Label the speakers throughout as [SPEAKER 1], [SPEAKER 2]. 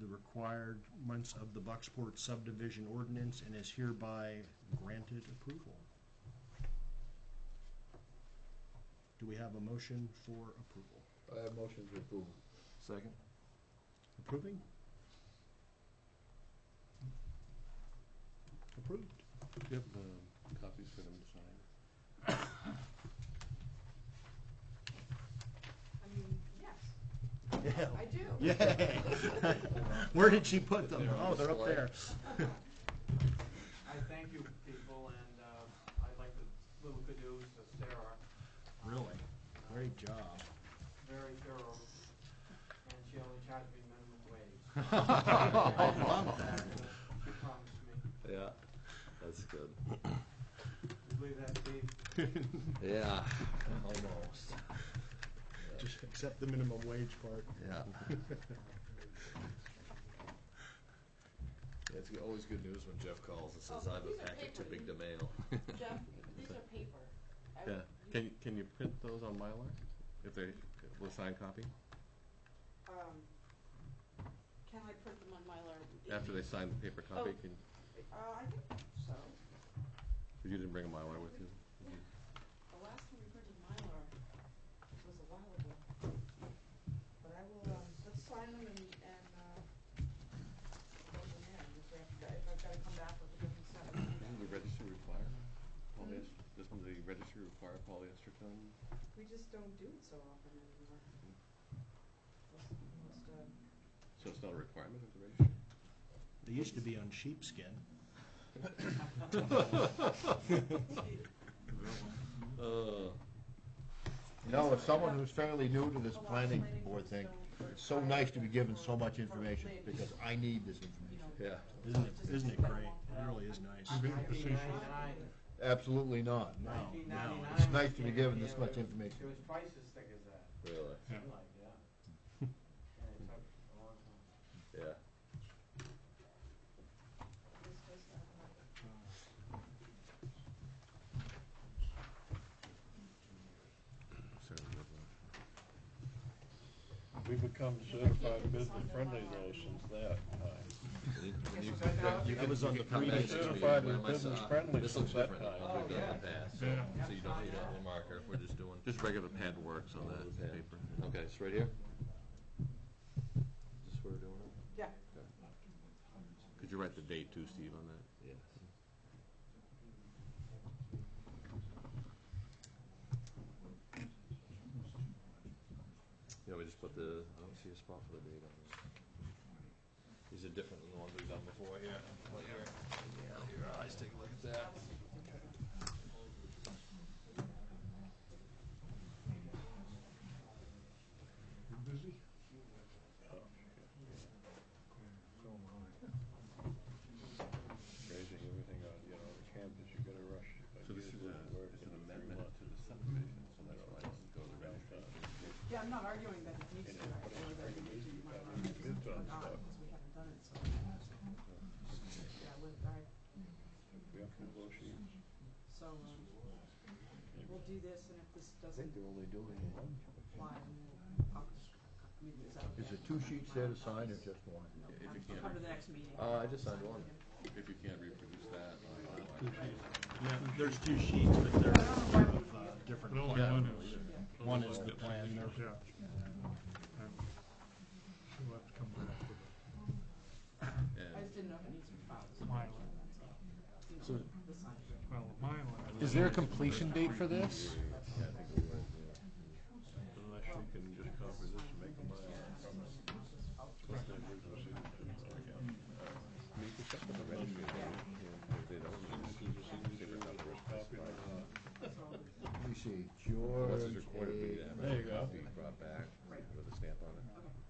[SPEAKER 1] the required months of the Bucksport subdivision ordinance and is hereby granted approval. Do we have a motion for approval?
[SPEAKER 2] I have motion to approve.
[SPEAKER 3] Second?
[SPEAKER 1] Approving? Approved.
[SPEAKER 4] Do you have the Um, copies for them to sign?
[SPEAKER 5] I mean, yes, I do.
[SPEAKER 1] Yay! Where did she put them? Oh, they're up there.
[SPEAKER 6] I thank you, people, and uh, I'd like to, little kudos to Sarah, Uh,
[SPEAKER 1] Really? Great job.
[SPEAKER 6] very thorough, and she only charged me minimum wage.
[SPEAKER 1] I love that.
[SPEAKER 6] She promised me,
[SPEAKER 3] Yeah, that's good.
[SPEAKER 6] You believe that, Steve?
[SPEAKER 3] Yeah, almost.
[SPEAKER 1] Just accept the minimum wage part.
[SPEAKER 3] Yeah. It's always good news when Jeff calls and says, I
[SPEAKER 6] Oh,
[SPEAKER 3] have a packet too big to mail.
[SPEAKER 5] Jeff, these are paper. I would-
[SPEAKER 4] Yeah, can, you- can you print those on Mylar, if they, with signed copy,
[SPEAKER 5] um, Can I print them on Mylar?
[SPEAKER 4] after they sign the paper copy,
[SPEAKER 5] Oh.
[SPEAKER 4] can,
[SPEAKER 5] Uh, I think so.
[SPEAKER 4] because you didn't bring a Mylar with you?
[SPEAKER 5] The last time we printed Mylar was a while ago. But I will, um, let's sign them and, and, uh, go from there. If I have to- If I've gotta come back with a different set, I'll do
[SPEAKER 4] Doesn't the
[SPEAKER 5] that.
[SPEAKER 4] registry require
[SPEAKER 5] Hmm?
[SPEAKER 4] polyester, doesn't the registry require polyester film?
[SPEAKER 5] We just don't do it so often anymore. Most, most, uh,
[SPEAKER 4] So it's not a requirement of the registry?
[SPEAKER 1] They used to be on sheepskin.
[SPEAKER 4] Uh,
[SPEAKER 2] You know, as someone who's fairly new to this planning board thing, it's so nice to be given so much information, because I need this information.
[SPEAKER 4] yeah.
[SPEAKER 1] Isn't it, isn't it great? It really is nice.
[SPEAKER 6] Nineteen ninety-nine,
[SPEAKER 2] Absolutely not. No.
[SPEAKER 6] nineteen ninety-nine.
[SPEAKER 2] It's nice to be given this much
[SPEAKER 6] It
[SPEAKER 2] information.
[SPEAKER 6] was twice as thick as that,
[SPEAKER 3] Really?
[SPEAKER 6] I'm like, yeah. And it took a long time.
[SPEAKER 3] Yeah.
[SPEAKER 5] this does not have it.
[SPEAKER 7] We become certified business friendly though since that time.
[SPEAKER 6] Guess what that now?
[SPEAKER 1] That was on the
[SPEAKER 3] Come back
[SPEAKER 1] previous.
[SPEAKER 3] next meeting,
[SPEAKER 7] Certified
[SPEAKER 3] wear
[SPEAKER 7] as
[SPEAKER 3] my
[SPEAKER 7] business
[SPEAKER 3] sock.
[SPEAKER 7] friendly
[SPEAKER 3] This looks
[SPEAKER 7] since that
[SPEAKER 3] different than
[SPEAKER 7] time.
[SPEAKER 3] what we've done in the
[SPEAKER 6] Oh, yeah.
[SPEAKER 3] past, so
[SPEAKER 6] Yeah.
[SPEAKER 3] so you don't need a whole marker, we're just doing.
[SPEAKER 4] Just regular pad works on that
[SPEAKER 3] Yeah.
[SPEAKER 4] paper. Okay, it's right here?
[SPEAKER 3] Just we're doing
[SPEAKER 5] Yeah.
[SPEAKER 4] Could you write the date too, Steve, on that?
[SPEAKER 3] it? Yes. Yeah, we just put the, I don't see a spot for the date on this. These are different than the ones we've done before, yeah. Well, here, yeah, your eyes, take a look at that.
[SPEAKER 7] Raising everything on, you know, the campus, you gotta rush. like,
[SPEAKER 4] So this is
[SPEAKER 7] usually
[SPEAKER 4] a,
[SPEAKER 7] it works
[SPEAKER 4] it's
[SPEAKER 7] in
[SPEAKER 4] an
[SPEAKER 7] three
[SPEAKER 4] amendment
[SPEAKER 7] months.
[SPEAKER 4] to the subdivision, so that's why it doesn't go to the registry.
[SPEAKER 5] Yeah, I'm not arguing that it needs to,
[SPEAKER 7] And then
[SPEAKER 5] I
[SPEAKER 7] put it
[SPEAKER 5] feel
[SPEAKER 7] on
[SPEAKER 5] that it
[SPEAKER 7] regular
[SPEAKER 5] needs to be
[SPEAKER 7] meeting, you gotta
[SPEAKER 5] my own, because
[SPEAKER 7] do it on stuff.
[SPEAKER 5] we haven't done it, so. Yeah, with, I,
[SPEAKER 7] We have to negotiate.
[SPEAKER 5] so, um, we'll do this, and if this doesn't
[SPEAKER 2] only doing one.
[SPEAKER 5] apply, then we'll, I'll, I mean, is that okay?
[SPEAKER 2] Is it two sheets there to sign or just one?
[SPEAKER 5] No,
[SPEAKER 4] If you
[SPEAKER 5] I'll
[SPEAKER 4] can't-
[SPEAKER 5] come to the next meeting.
[SPEAKER 3] Uh, I just signed one.
[SPEAKER 4] If you can't reproduce that, on Mylar.
[SPEAKER 1] Yeah, there's two sheets, but they're of uh, different.
[SPEAKER 7] one
[SPEAKER 1] plans. One is the plan.
[SPEAKER 7] Yeah.
[SPEAKER 5] I just didn't know if it needs to be filed. as a motion, that's all. You know, the sign.
[SPEAKER 2] Is there a completion date for this?
[SPEAKER 7] Unless you can just copy this and make a mile. Plus the original signature. I mean, you could check with the registry. If they don't, this is the signature on the first copy.
[SPEAKER 2] Let me see,
[SPEAKER 4] Once
[SPEAKER 2] George
[SPEAKER 4] it's recorded, we
[SPEAKER 2] A.
[SPEAKER 4] have
[SPEAKER 7] There you
[SPEAKER 4] a
[SPEAKER 7] go.
[SPEAKER 4] copy brought back with a stamp on it.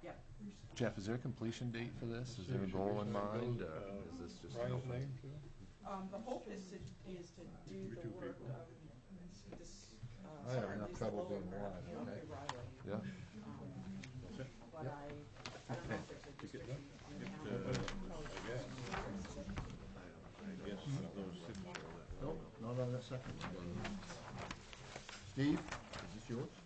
[SPEAKER 5] Okay, yeah,
[SPEAKER 3] Jeff, is there a completion date for this? Is there a goal in mind, or is this just?
[SPEAKER 7] Brian's name, too?
[SPEAKER 5] um, the hope is to, is to do the work of this, uh,
[SPEAKER 2] I have
[SPEAKER 5] sorry,
[SPEAKER 2] enough
[SPEAKER 5] this
[SPEAKER 2] trouble
[SPEAKER 5] lower
[SPEAKER 2] being
[SPEAKER 5] part,
[SPEAKER 2] wise,
[SPEAKER 5] the
[SPEAKER 2] okay?
[SPEAKER 5] Riley.
[SPEAKER 3] Yeah,
[SPEAKER 5] Um, But I, I don't know if there's a restriction on the calendar.
[SPEAKER 2] Nope, not on that second one. Steve, is this yours?